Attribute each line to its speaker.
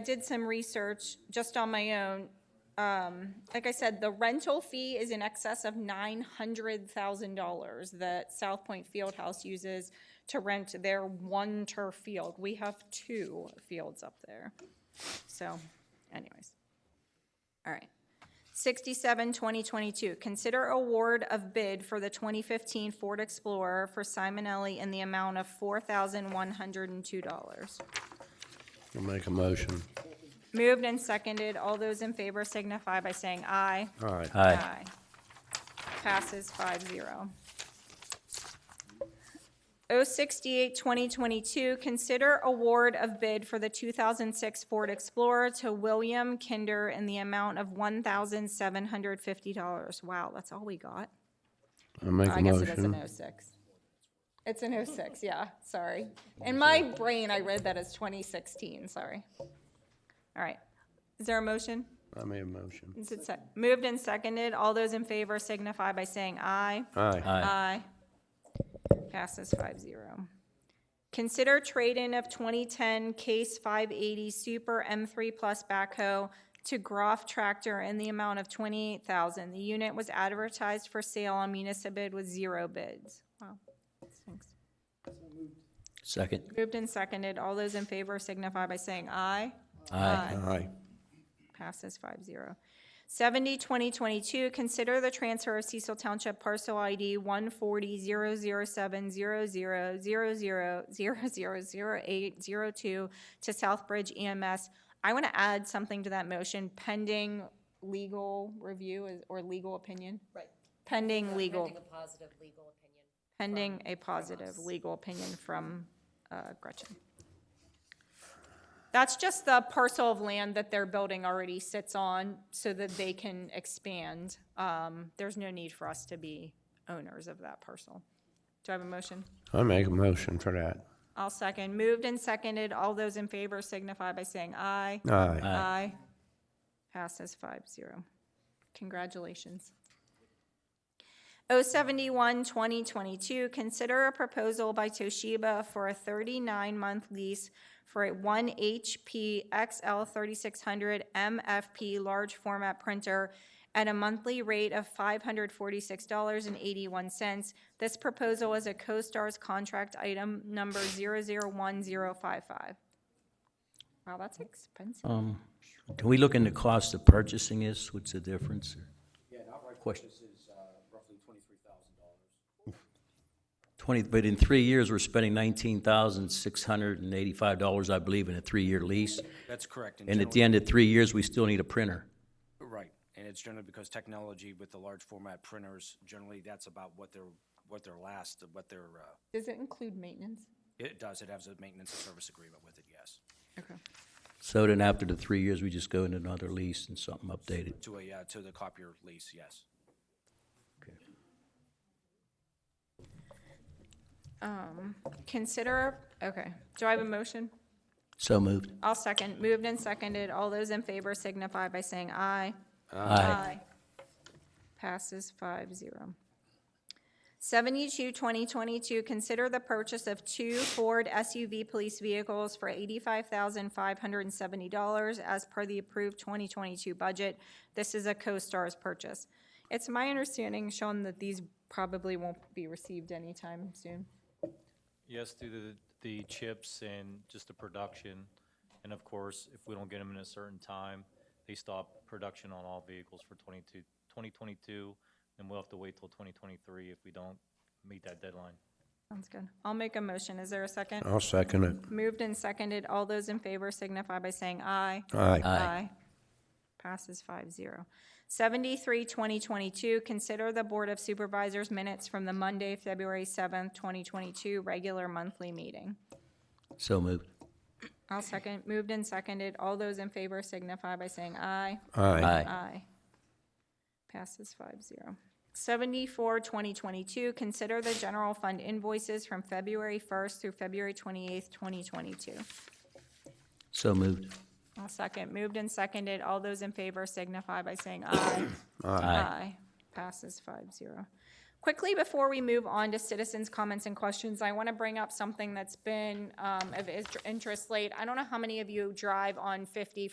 Speaker 1: I did some research just on my own. Um, like I said, the rental fee is in excess of nine hundred thousand dollars that South Point Fieldhouse uses to rent their one turf field. We have two fields up there. So anyways. All right. 67, 2022, consider award of bid for the 2015 Ford Explorer for Simonelli in the amount of $4,102.
Speaker 2: I'll make a motion.
Speaker 1: Moved and seconded. All those in favor signify by saying aye.
Speaker 2: All right.
Speaker 3: Aye.
Speaker 1: Passes five zero. O sixty-eight, twenty twenty-two, consider award of bid for the two thousand six Ford Explorer to William Kinder in the amount of one thousand seven hundred fifty dollars. Wow, that's all we got.
Speaker 2: I'll make a
Speaker 1: I guess it is an
Speaker 2: motion.
Speaker 1: O six. It's an O six, yeah, sorry. In my brain, I read that as twenty sixteen, sorry. All right. Is there a motion?
Speaker 2: I made a motion.
Speaker 1: Is it sec- Moved and seconded. All those in favor signify by saying aye.
Speaker 2: Aye.
Speaker 3: Aye.
Speaker 1: Passes five zero. Consider trade-in of 2010 Case 580 Super M3 Plus backhoe to Groff Tractor in the amount of 28000 The unit was advertised for sale on Municipid with zero bids. Wow. Thanks.
Speaker 3: Second.
Speaker 1: Moved and seconded. All those in favor signify by saying aye.
Speaker 3: Aye.
Speaker 2: Aye.
Speaker 1: Passes five zero. Seventy, twenty twenty-two, consider the transfer of Cecil Township parcel ID one forty zero zero seven zero zero zero zero zero zero zero eight zero two to Southbridge EMS. I want to add something to that motion pending legal review is- or legal opinion,
Speaker 4: Right.
Speaker 1: pending legal,
Speaker 4: Pending a positive legal opinion.
Speaker 1: pending a positive legal opinion from uh, Gretchen. That's just the parcel of land that their building already sits on so that they can expand. Um, There's no need for us to be owners of that parcel. Do I have a motion?
Speaker 2: I make a motion for that.
Speaker 1: I'll second. Moved and seconded. All those in favor signify by saying aye.
Speaker 2: Aye.
Speaker 1: Aye. Passes five zero. Congratulations. O seventy-one, twenty twenty-two, consider a proposal by Toshiba for a thirty-nine month lease for a one HP XL thirty-six hundred MFP large format printer at a monthly rate of five hundred forty-six dollars and eighty-one cents. This proposal is a CoStar's contract item number zero zero one zero five five. Wow, that's expensive.
Speaker 3: Um, Can we look into cost of purchasing this? What's the difference? or- Question. Twenty, but in three years, we're spending nineteen thousand six hundred and eighty-five dollars, I believe, in a three-year lease.
Speaker 5: That's correct.
Speaker 3: And at
Speaker 5: generally-
Speaker 3: the end of three years, we still need a printer.
Speaker 5: Right, and it's generally because technology with the large format printers, generally that's about what their, what their last, what their, uh,
Speaker 1: Does it include maintenance?
Speaker 5: it does, it has a maintenance and service agreement with it, yes.
Speaker 1: Okay.
Speaker 3: So then after the three years, we just go into another lease and something updated.
Speaker 5: To a, uh, to the copier lease, yes.
Speaker 1: Consider, okay, do I have a motion?
Speaker 3: So moved.
Speaker 1: I'll second, moved and seconded, all those in favor signify by saying aye.
Speaker 3: Aye.
Speaker 1: Passes five zero. Seventy-two, twenty twenty-two, consider the purchase of two Ford SUV police vehicles for eighty-five thousand five hundred and seventy dollars as per the approved twenty twenty-two budget. This is a CoStar's purchase. It's my understanding, Sean, that these probably won't be received anytime soon.
Speaker 6: Yes, through the, the chips and just the production. And of course, if we don't get them in a certain time, they stop production on all vehicles for 22, 2022, and we'll have to wait till 2023 if we don't meet that deadline.
Speaker 1: Sounds good. I'll make a motion. Is there a second?
Speaker 2: I'll second it.
Speaker 1: Moved and seconded. All those in favor signify by saying aye.
Speaker 2: Aye.
Speaker 1: Passes five zero. Seventy-three, twenty twenty-two, consider the Board of Supervisors minutes from the Monday, February seventh, twenty twenty-two, regular monthly meeting.
Speaker 3: So moved.
Speaker 1: I'll second. Moved and seconded. All those in favor signify by saying aye.
Speaker 2: Aye.
Speaker 3: Aye.
Speaker 1: Aye. Passes five zero. Seventy-four, twenty twenty-two, consider the general fund invoices from February first through February twenty-eighth, twenty twenty-two.
Speaker 3: So moved.
Speaker 1: I'll second. Moved and seconded. All those in favor signify by saying aye.
Speaker 3: Aye.
Speaker 1: Passes five zero. Quickly, before we move on to citizens' comments and questions, I want to bring up something that's been um, of is- interest late. I don't know how many of you drive on 50